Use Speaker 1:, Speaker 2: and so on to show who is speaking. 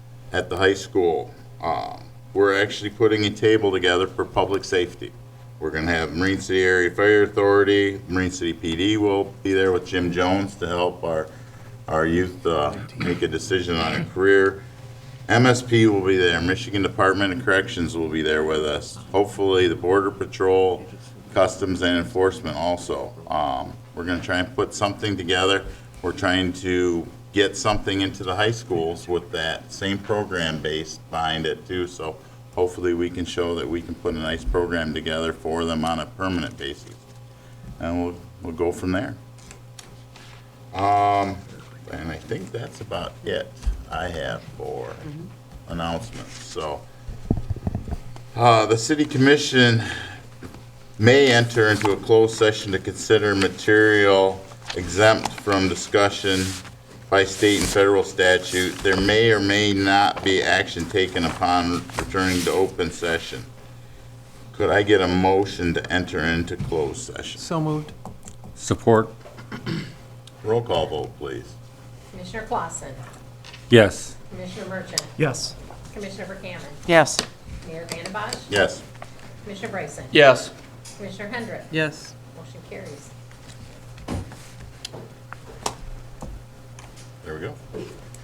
Speaker 1: at the high school. Um, We're actually putting a table together for public safety. We're going to have Marine City Area Fire Authority, Marine City PD will be there with Jim Jones to help our, our youth uh, make a decision on a career. MSP will be there, Michigan Department of Corrections will be there with us. Hopefully, the Border Patrol, Customs and Enforcement also. Um, We're going to try and put something together. We're trying to get something into the high schools with that same program base behind it too. So hopefully, we can show that we can put a nice program together for them on a permanent basis. And we'll, we'll go from there. Um, and I think that's about it I have for announcements, so. Uh, the city commission may enter into a closed session to consider material exempt from discussion by state and federal statute. There may or may not be action taken upon returning to open session. Could I get a motion to enter into closed session?
Speaker 2: So moved.
Speaker 3: Support?
Speaker 1: Roll call vote, please.
Speaker 4: Commissioner Clausen,
Speaker 3: Yes.
Speaker 4: Commissioner Merchant,
Speaker 2: Yes.
Speaker 4: Commissioner Verkaman,
Speaker 2: Yes.
Speaker 4: Mayor Van Bosch,
Speaker 1: Yes.
Speaker 4: Commissioner Bryson,
Speaker 2: Yes.
Speaker 4: Commissioner Hendrick.
Speaker 2: Yes.
Speaker 4: Motion carries.
Speaker 1: There we go.